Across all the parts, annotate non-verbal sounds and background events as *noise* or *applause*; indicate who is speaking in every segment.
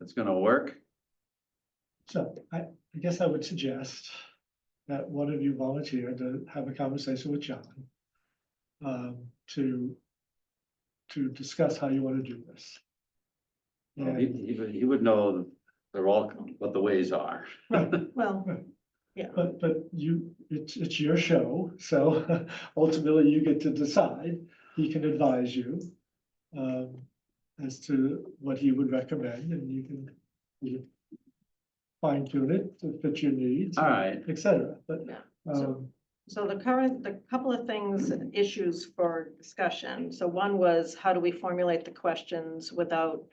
Speaker 1: it's gonna work.
Speaker 2: So I, I guess I would suggest that one of you volunteer to have a conversation with John. Um, to, to discuss how you want to do this.
Speaker 1: Well, He,
Speaker 2: And,
Speaker 1: he would- he would know they're all, what the ways *laughs* are.
Speaker 2: right,
Speaker 3: Well,
Speaker 2: but, but you, it's, it's your show, so *laughs* ultimately you get to decide. He can advise you, um, as to what he would recommend and you can, you can fine tune it to fit your needs,
Speaker 1: All right,
Speaker 2: et cetera, but,
Speaker 3: Uh, Yeah.
Speaker 2: um.
Speaker 3: so the current, the couple of things, issues for discussion. So one was, how do we formulate the questions without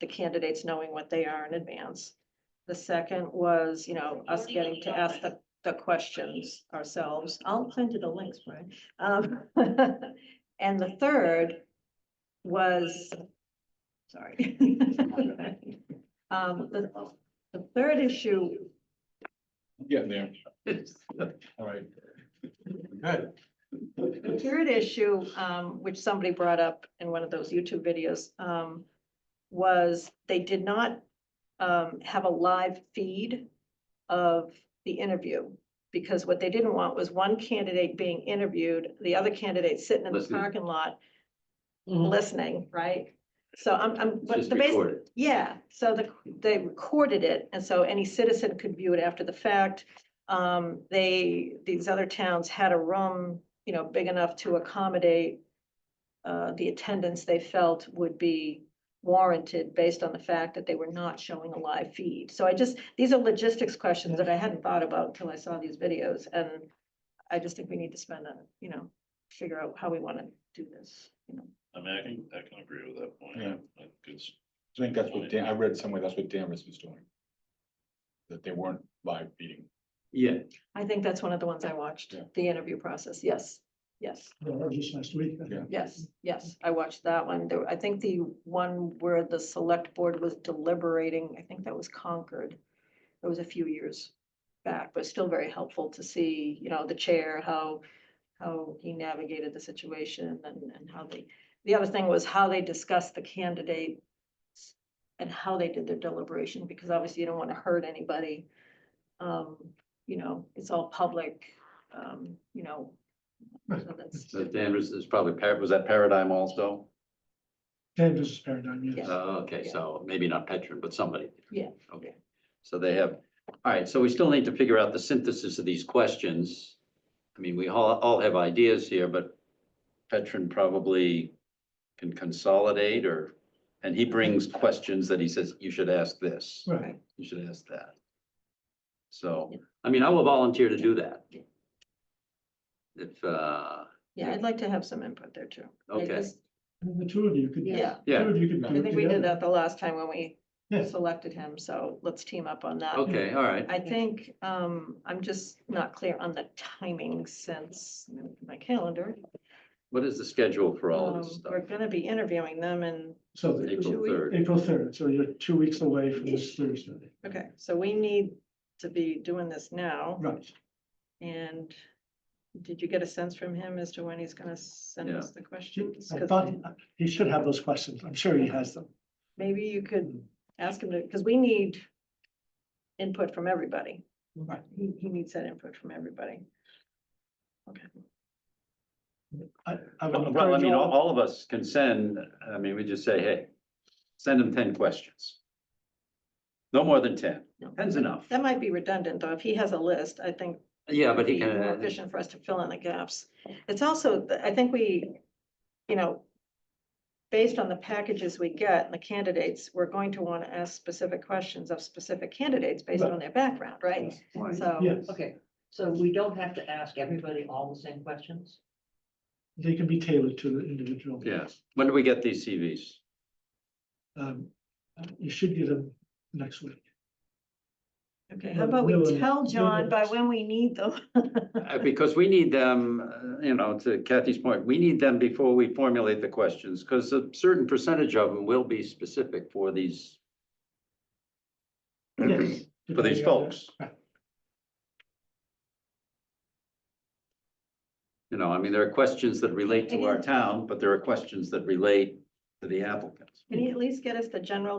Speaker 3: the candidates knowing what they are in advance? The second was, you know, us getting to ask the, the questions ourselves. I'll send you the links, Brian. Um, *laughs* And the third was, sorry. *laughs* Um, the, the third issue
Speaker 4: Getting there. All right. Good.
Speaker 3: The
Speaker 2: Mm-hmm.
Speaker 3: third issue, um, which somebody brought up in one of those YouTube videos, um, was they did not um, have a live feed of the interview. Because what they didn't want was one candidate being interviewed, the other candidate sitting in the
Speaker 1: Listening.
Speaker 3: parking lot,
Speaker 2: Mm-hmm.
Speaker 3: listening, right? So I'm, I'm,
Speaker 1: it's
Speaker 3: but
Speaker 1: just
Speaker 3: the basic,
Speaker 1: recorded.
Speaker 3: yeah, so the, they recorded it, and so any citizen could view it after the fact. Um, they, these other towns had a room, you know, big enough to accommodate uh, the attendance they felt would be warranted based on the fact that they were not showing a live feed. So I just, these are logistics questions that I hadn't thought about until I saw these videos, and I just think we need to spend a, you know, figure out how we want to do this, you know.
Speaker 5: I mean, I can, I can agree with that point.
Speaker 4: Yeah.
Speaker 5: I think it's-
Speaker 4: I think that's what Dan, I read somewhere, that's what Danvers was doing. That they weren't live feeding.
Speaker 1: Yeah,
Speaker 3: I think that's one of the ones I watched,
Speaker 4: Yeah.
Speaker 3: the interview process, yes, yes,
Speaker 2: Or just last week. I
Speaker 4: Yeah.
Speaker 2: think.
Speaker 3: yes, yes, I watched that one, there, I think the one where the select board was deliberating, I think that was Concord. It was a few years back, but still very helpful to see, you know, the chair, how, how he navigated the situation and, and how they. The other thing was how they discussed the candidate and how they did their deliberation, because obviously you don't want to hurt anybody. Um, you know, it's all public, um, you know. so that's-
Speaker 1: so Danvers is probably, Par- was that Paradigm also?
Speaker 2: Canvas is paradigm, yes.
Speaker 3: Yeah.
Speaker 1: Oh, Okay,
Speaker 3: Yeah.
Speaker 1: so maybe not Petron, but somebody.
Speaker 3: Yeah.
Speaker 1: Okay, so they have, all right, so we still need to figure out the synthesis of these questions. I mean, we all, all have ideas here, but Petron probably can consolidate or, and he brings questions that he says, you should ask this,
Speaker 2: Right,
Speaker 1: you should ask that. So,
Speaker 3: Yeah.
Speaker 1: I mean, I will volunteer to do that.
Speaker 3: Yeah.
Speaker 1: If, uh,
Speaker 3: Yeah, I'd like to have some input there too. I
Speaker 1: Okay.
Speaker 3: just-
Speaker 2: and the two of you could.
Speaker 3: Yeah.
Speaker 1: Yeah.
Speaker 2: Two of you could do
Speaker 3: I
Speaker 2: it
Speaker 3: think we did
Speaker 2: together.
Speaker 3: that the last time when we
Speaker 2: Yeah.
Speaker 3: selected him, so let's team up on that.
Speaker 1: okay, all right,
Speaker 3: I think, um, I'm just not clear on the timing since let me look at my calendar.
Speaker 1: what is the schedule for all of this
Speaker 3: Um,
Speaker 1: stuff?
Speaker 3: We're gonna be interviewing them and,
Speaker 2: So the-
Speaker 1: April third.
Speaker 2: April third, so you're two weeks away from this Thursday.
Speaker 3: okay, so we need to be doing this now.
Speaker 2: Right.
Speaker 3: And did you get a sense from him as to when he's gonna send
Speaker 1: Yeah.
Speaker 3: us the questions?
Speaker 2: I
Speaker 3: 'Cause
Speaker 2: thought he should have those questions. I'm sure he has them.
Speaker 3: Maybe you could ask him to, because we need input from everybody.
Speaker 2: Right.
Speaker 3: He, he needs that input from everybody. Okay.
Speaker 2: I, I would
Speaker 1: Well, I
Speaker 2: encourage
Speaker 1: mean, all,
Speaker 2: all,
Speaker 1: all of us can send, I mean, we just say, hey, send them ten questions. No more than ten.
Speaker 3: No.
Speaker 1: Ten's enough.
Speaker 3: That might be redundant, though. If he has a list, I think
Speaker 1: Yeah, but he
Speaker 3: be more
Speaker 1: can, uh,
Speaker 3: efficient for us to fill in the gaps. It's also, th- I think we, you know, based on the packages we get and the candidates, we're going to want to ask specific questions of specific candidates based
Speaker 2: Right.
Speaker 3: on their background, right?
Speaker 1: Right.
Speaker 3: So.
Speaker 2: yes,
Speaker 6: Okay, so we don't have to ask everybody all the same questions?
Speaker 2: they can be tailored to the individual.
Speaker 1: Yeah. when do we get these CVs?
Speaker 2: Um, you should get them next week.
Speaker 3: Okay,
Speaker 2: Yeah,
Speaker 3: how about
Speaker 2: no,
Speaker 3: we
Speaker 2: no,
Speaker 3: tell
Speaker 2: no,
Speaker 3: John by
Speaker 2: it's-
Speaker 3: when we need them?
Speaker 1: Uh, Because we need them, uh, you know, to Kathy's point, we need them before we formulate the questions, because a certain percentage of them will be specific for these,
Speaker 2: Yes.
Speaker 1: for these folks. You know, I mean, there are questions that relate to our town, but there are questions that relate to the applicants.
Speaker 3: Can you at least get us the general